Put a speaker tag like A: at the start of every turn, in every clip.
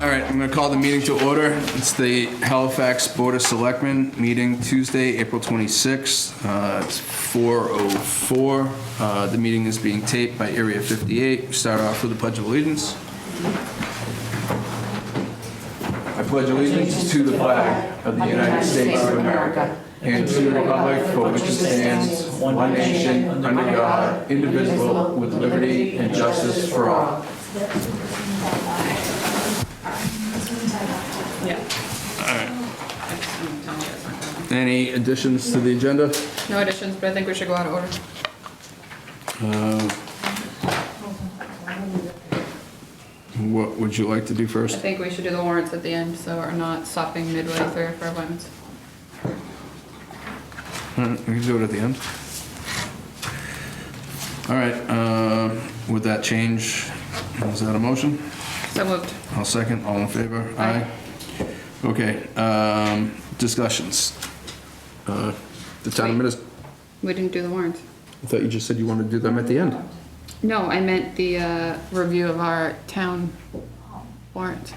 A: All right, I'm going to call the meeting to order. It's the Halifax Board of Selectmen meeting Tuesday, April 26th. Uh, It's 4:04. Uh, The meeting is being taped by Area 58. We Start off with the Pledge of Allegiance. I pledge allegiance to the flag of the United States of America and to the republic for which it stands, one nation, under God, indivisible, with liberty and justice for all. Any additions to the agenda?
B: No additions, but I think we should go out of order.
A: Uh, What would you like to do
B: I
A: first?
B: think we should do the warrants at the end, so we're not stopping midway through for appointments.
A: Uh, We can do it at the end. All right, uh, with that change, is that a motion?
B: So moved.
A: I'll second, all in favor?
B: Aye.
A: Okay, um, discussions. Uh, The town administrator,
B: We didn't do the warrants.
A: I thought you just said you wanted to do them at the end.
B: No, I meant the uh, review of our town warrant.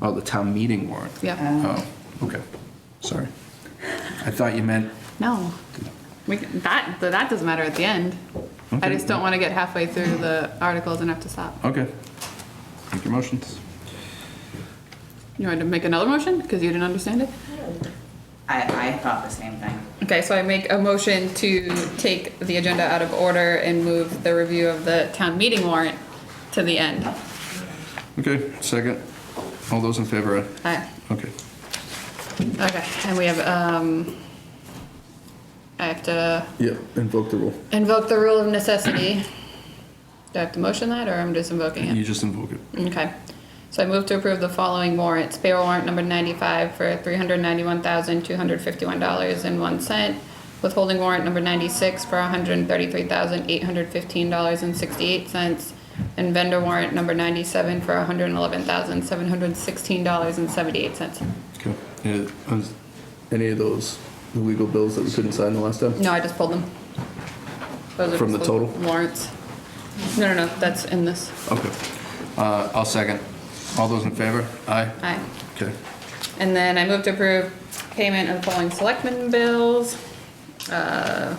A: Oh, the town meeting warrant.
B: Yeah.
A: Oh, okay, sorry. I thought you meant,
B: No. We, can- that, that doesn't matter at the end. I
A: Okay.
B: just don't want to get halfway through the articles and have to stop.
A: okay. Make your motions.
B: You want to make another motion? Because you didn't understand it?
C: I, I thought the same thing.
B: Okay, so I make a motion to take the agenda out of order and move the review of the town meeting warrant to the end.
A: Okay, second. All those in favor? aye?
B: Aye.
A: Okay.
B: Okay, and we have, um, I have to
A: Yeah, invoke the rule.
B: invoke the rule of necessity. Do I have to motion that, or I'm just invoking
A: You
B: it?
A: just invoke it.
B: Okay. So I move to approve the following warrants. Payroll warrant number ninety-five for three hundred ninety-one thousand, two hundred fifty-one dollars and one cent. Withholding warrant number ninety-six for hundred thirty-three thousand, eight hundred fifteen dollars and sixty-eight cents. And vendor warrant number ninety-seven for hundred eleven thousand, seven hundred sixteen dollars and seventy-eight cents.
A: Okay. Yeah, is Any of those illegal bills that we couldn't sign the last time?
B: No, I just pulled them. Those are
A: From
B: just
A: the total?
B: Warrants. No, no, no, that's in this.
A: Okay. Uh, I'll second. All those in favor? Aye?
B: Aye.
A: Okay.
B: And then I move to approve payment of following selectmen bills. Uh,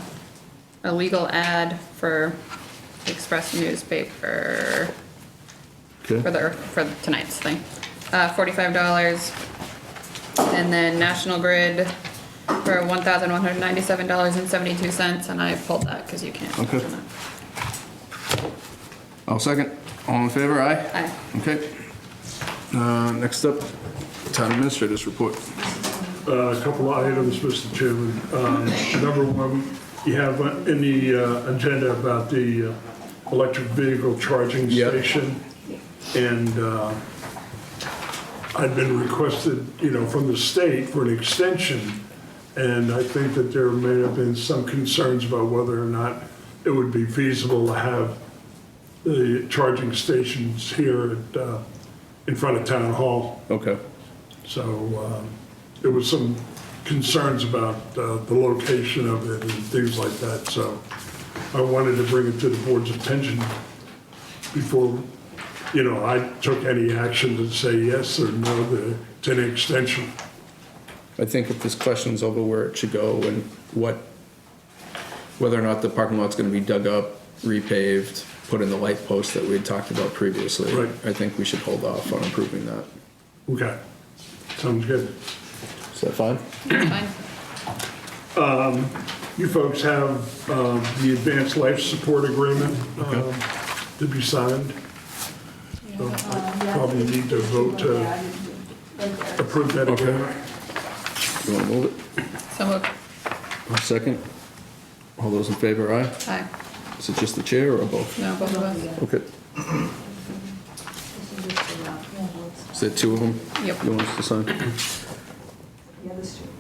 B: A legal ad for the Express newspaper for
A: Okay.
B: the, for tonight's thing. Uh, forty-five dollars. And then National Grid for one thousand one hundred ninety-seven dollars and seventy-two cents, and I pulled that because you can't.
A: Okay.
B: mention
A: I'll second. All in favor? Aye?
B: that. Aye.
A: Okay. Uh, next up, town administrators report.
D: Uh, A couple of items, Mr. Chairman. Um, Number one, you have in the uh, agenda about the uh, electric vehicle charging
A: Yep.
D: station. And uh, I'd been requested, you know, from the state for an extension. And I think that there may have been some concerns about whether or not it would be feasible to have the charging stations here at, uh, in front of Town Hall.
A: Okay.
D: So um, there was some concerns about uh, the location of it and things like that, so I wanted to bring it to the board's attention before, you know, I took any action to say yes or no to- to an extension.
A: I think if this question's over where it should go and what, whether or not the parking lot's gonna be dug up, repaved, put in the light posts that we had talked about previously.
D: Right.
A: I think we should hold off on approving that.
D: Okay, sounds good.
A: Is that fine?
B: It's fine.
D: You folks have um, the Advanced Life Support Agreement um, to be signed. So I Probably need to vote to approve that
A: Okay.
D: agreement.
A: You wanna move it?
B: So moved.
A: I'll second. All those in favor, aye?
B: Aye.
A: Is it just the chair or both?
B: No, both of us.
A: Okay. Is there two of them?
B: Yep.
A: You want us to sign?
E: The other street.